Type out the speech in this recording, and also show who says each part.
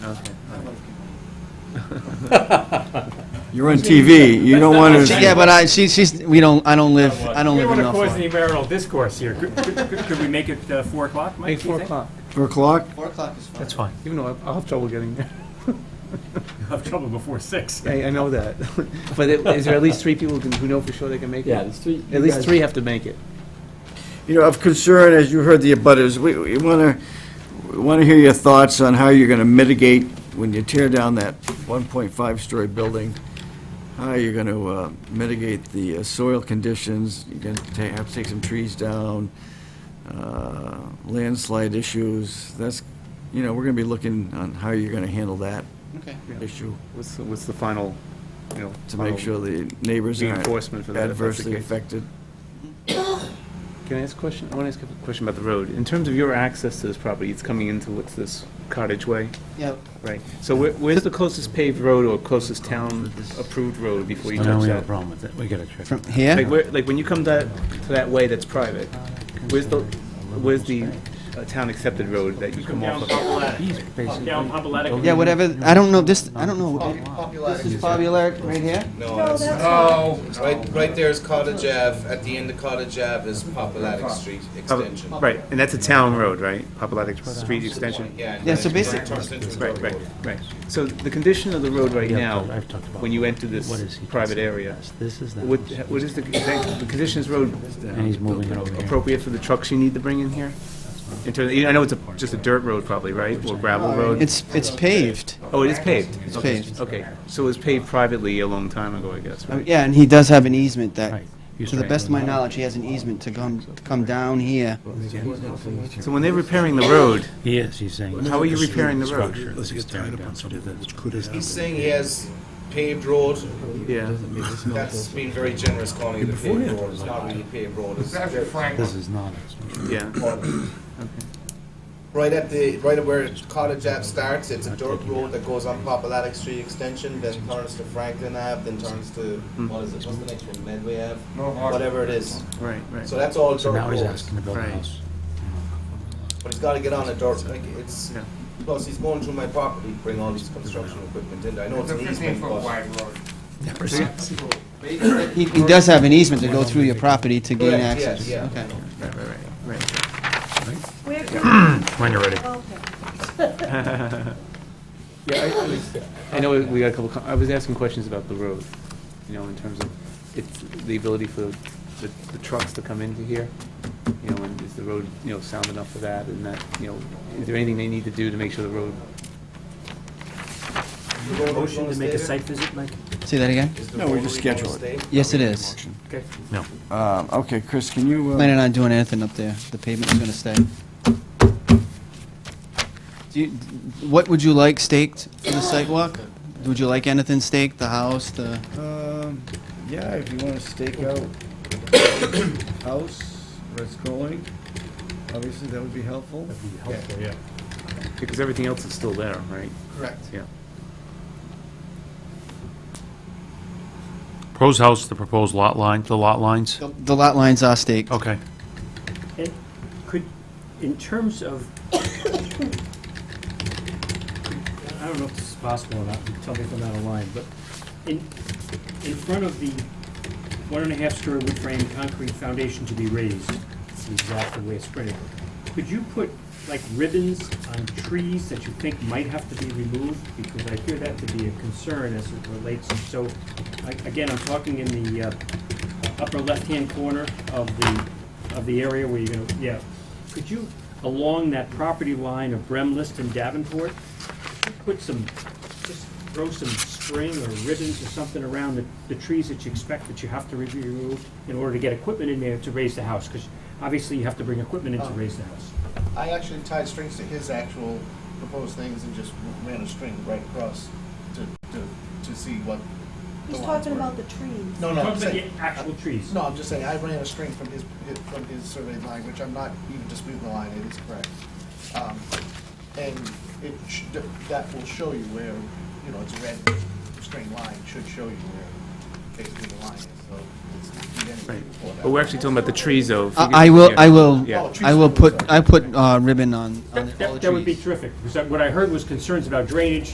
Speaker 1: Okay.
Speaker 2: You're on TV, you don't want to...
Speaker 1: Yeah, but I, she, she's, we don't, I don't live, I don't
Speaker 3: We
Speaker 1: live
Speaker 3: don't
Speaker 1: in
Speaker 3: want to cause any
Speaker 1: Norfolk.
Speaker 3: marital discourse here. Could- Could could- could we make it uh, 4 o'clock, Mike?
Speaker 4: Hey,
Speaker 3: do you
Speaker 4: four
Speaker 3: think?
Speaker 4: o'clock,
Speaker 2: Four o'clock?
Speaker 1: Four o'clock is fine.
Speaker 4: that's fine, even though I'll have trouble getting there.
Speaker 3: I'll Have trouble before 6.
Speaker 4: I, I know that, but it- is there at least three people who can- who know for sure they can make it?
Speaker 5: Yeah, there's three. you
Speaker 4: At least
Speaker 5: guys-
Speaker 4: three have to make it.
Speaker 2: You know, of concern, as you heard the abutters, we, we want to, we want to hear your thoughts on how you're going to mitigate when you tear down that 1.5-story building, how you're going to mitigate the uh, soil conditions, you're going to have to take some trees down, uh, landslide issues, that's, you know, we're going to be looking on how you're going to handle that
Speaker 1: Okay.
Speaker 2: issue,
Speaker 4: What's, the- what's the final, you know?
Speaker 2: to make
Speaker 4: final-
Speaker 2: sure the neighbors aren't
Speaker 4: Reinforcement for that, if that's
Speaker 2: adversely
Speaker 4: the case.
Speaker 2: affected.
Speaker 4: Can I ask a question? I want to ask a question about the road. In terms of your access to this property, it's coming into what's this cottage way,
Speaker 1: Yeah,
Speaker 4: right? So where, where's the closest paved road or closest town approved road before you
Speaker 6: No,
Speaker 4: touch
Speaker 6: we have a
Speaker 4: that?
Speaker 6: problem with it, we gotta check.
Speaker 1: from here,
Speaker 4: Like where, like when you come that, to that way that's private, where's the, where's the uh, town accepted road that you come off
Speaker 3: Down
Speaker 4: of?
Speaker 3: Populatic.
Speaker 6: He's basically-
Speaker 3: Down Populatic.
Speaker 1: yeah, whatever, I don't know, this, I don't know. This is Bobby Larrick right here?
Speaker 7: No, Oh, right, right there is Cottage Ave, at the end of Cottage Ave is Populatic Street extension.
Speaker 4: Right, and that's a town road, right? Populatic Street Extension?
Speaker 7: Yeah. and
Speaker 1: Yeah, so
Speaker 7: then it
Speaker 1: basic-
Speaker 7: turns into a
Speaker 4: Right,
Speaker 7: dirt
Speaker 4: right,
Speaker 7: road.
Speaker 4: right. So the condition of the road right
Speaker 6: Yeah,
Speaker 4: now,
Speaker 6: I've talked about
Speaker 4: when you enter
Speaker 6: What
Speaker 4: this
Speaker 6: is he
Speaker 4: private
Speaker 6: considering
Speaker 4: area,
Speaker 6: this? This is that.
Speaker 4: what,
Speaker 6: house.
Speaker 4: what is the, the condition of this road
Speaker 6: And he's moving it over here.
Speaker 4: appropriate for the trucks you need to bring in here? In terms, I know it's a, just a dirt road probably, right, or gravel road?
Speaker 1: It's, it's paved.
Speaker 4: Oh, it is paved?
Speaker 1: It's
Speaker 4: Okay,
Speaker 1: paved.
Speaker 4: Okay, so it was paved privately a long time ago, I guess,
Speaker 1: Uh,
Speaker 6: Oh,
Speaker 4: right?
Speaker 1: Yeah, and he does have an easement that,
Speaker 6: Right. You
Speaker 1: to the
Speaker 6: start
Speaker 1: best of my
Speaker 6: going out.
Speaker 1: knowledge, he has an easement to come, to come down here.
Speaker 4: So when they're repairing the road,
Speaker 6: He is, he's saying.
Speaker 4: How are you repairing the road?
Speaker 6: Structure
Speaker 8: Let's
Speaker 6: that's
Speaker 8: get tied
Speaker 6: tearing
Speaker 8: up
Speaker 6: down
Speaker 8: on
Speaker 6: to
Speaker 8: something
Speaker 6: the-
Speaker 8: which could happen.
Speaker 7: He's saying he has paved road,
Speaker 4: yeah,
Speaker 7: that's being very generous calling it a paved road, it's not really paved road. It's
Speaker 6: This is not.
Speaker 4: yeah.
Speaker 7: Right at the, right where Cottage Ave starts, it's a dirt road that goes on Populatic Street extension, then turns to Franklin Ave, then turns to, what is it, what's the next one, Medway Ave? Whatever it is,
Speaker 4: Right, right.
Speaker 7: so that's all
Speaker 6: So
Speaker 7: dirt
Speaker 6: now he's
Speaker 7: roads,
Speaker 6: asking to build a
Speaker 4: Right.
Speaker 6: house.
Speaker 7: but he's gotta get on a dirt, like, it's,
Speaker 4: Yeah.
Speaker 7: plus he's going through my property, to bring all these construction equipment in, I know it's an easement, but.
Speaker 1: He, he does have an easement to go through your property to gain
Speaker 7: Correct, yes,
Speaker 1: access.
Speaker 7: yeah.
Speaker 1: Okay.
Speaker 9: Where can,
Speaker 6: When you're ready.
Speaker 9: okay.
Speaker 4: Yeah, I- I, was- I know we got a couple, com- I was asking questions about the road, you know, in terms of its, the ability for the, the trucks to come into here, you know, and is the road, you know, sound enough for that, and that, you know, is there anything they need to do to make sure the road
Speaker 3: Motion to make a site visit, Mike?
Speaker 1: Say that again?
Speaker 2: No, we just schedule it.
Speaker 1: Yes, it is.
Speaker 2: Um, Okay, Chris, can you, uh,
Speaker 1: Planning on doing anything up there. The pavement's gonna stay. Do you, what would you like staked for the sidewalk? Would you like anything staked, the house, the,
Speaker 2: um, yeah, if you want to stake out house, where it's going, obviously that would be helpful.
Speaker 4: Because everything else is still there, right?
Speaker 1: Correct.
Speaker 4: Yeah.
Speaker 10: Proposed house, the proposed lot line, the lot lines?
Speaker 1: the- the lot lines are staked?
Speaker 10: Okay.
Speaker 3: And could, in terms of,
Speaker 6: I don't know if this is possible or not, tell me if I'm out of line, but
Speaker 3: in, in front of the one and a half story wood frame concrete foundation to be raised, it's exactly where it's printed. Could you put like ribbons on trees that you think might have to be removed? Because I hear that to be a concern as it relates, so, I- again, I'm talking in the uh, upper left-hand corner of the, of the area where you're gonna, yeah. Could you, along that property line of Bremlist and Davenport, could you put some, just throw some string or ribbons or something around the, the trees that you expect that you have to re- remove in order to get equipment in there to raise the house? Because obviously you have to bring equipment
Speaker 7: Oh.
Speaker 3: in to raise the house.
Speaker 7: I actually tied strings to his actual proposed things and just ran a string right across to, to, to see what.
Speaker 9: He's talking about the trees.
Speaker 7: No, no,
Speaker 3: Talk
Speaker 7: I'm
Speaker 3: about the
Speaker 7: saying,
Speaker 3: actual trees.
Speaker 7: no, I'm just saying, I ran a string from his, from his surveyed line, which I'm not even disputing the line, it is correct. Um, And it, sh- that will show you where, you know, it's a red string line, should show you where
Speaker 11: basically the line is, so it's-
Speaker 4: Right.
Speaker 11: you didn't report that.
Speaker 4: But we're actually talking about the trees, though. If we get-
Speaker 1: I I will,
Speaker 4: yeah.
Speaker 1: I will,
Speaker 4: Yeah.
Speaker 1: I will put, I put uh, ribbon on, on all the
Speaker 3: Oh, That
Speaker 1: trees.
Speaker 3: that would be terrific, because that- what I heard was concerns about drainage,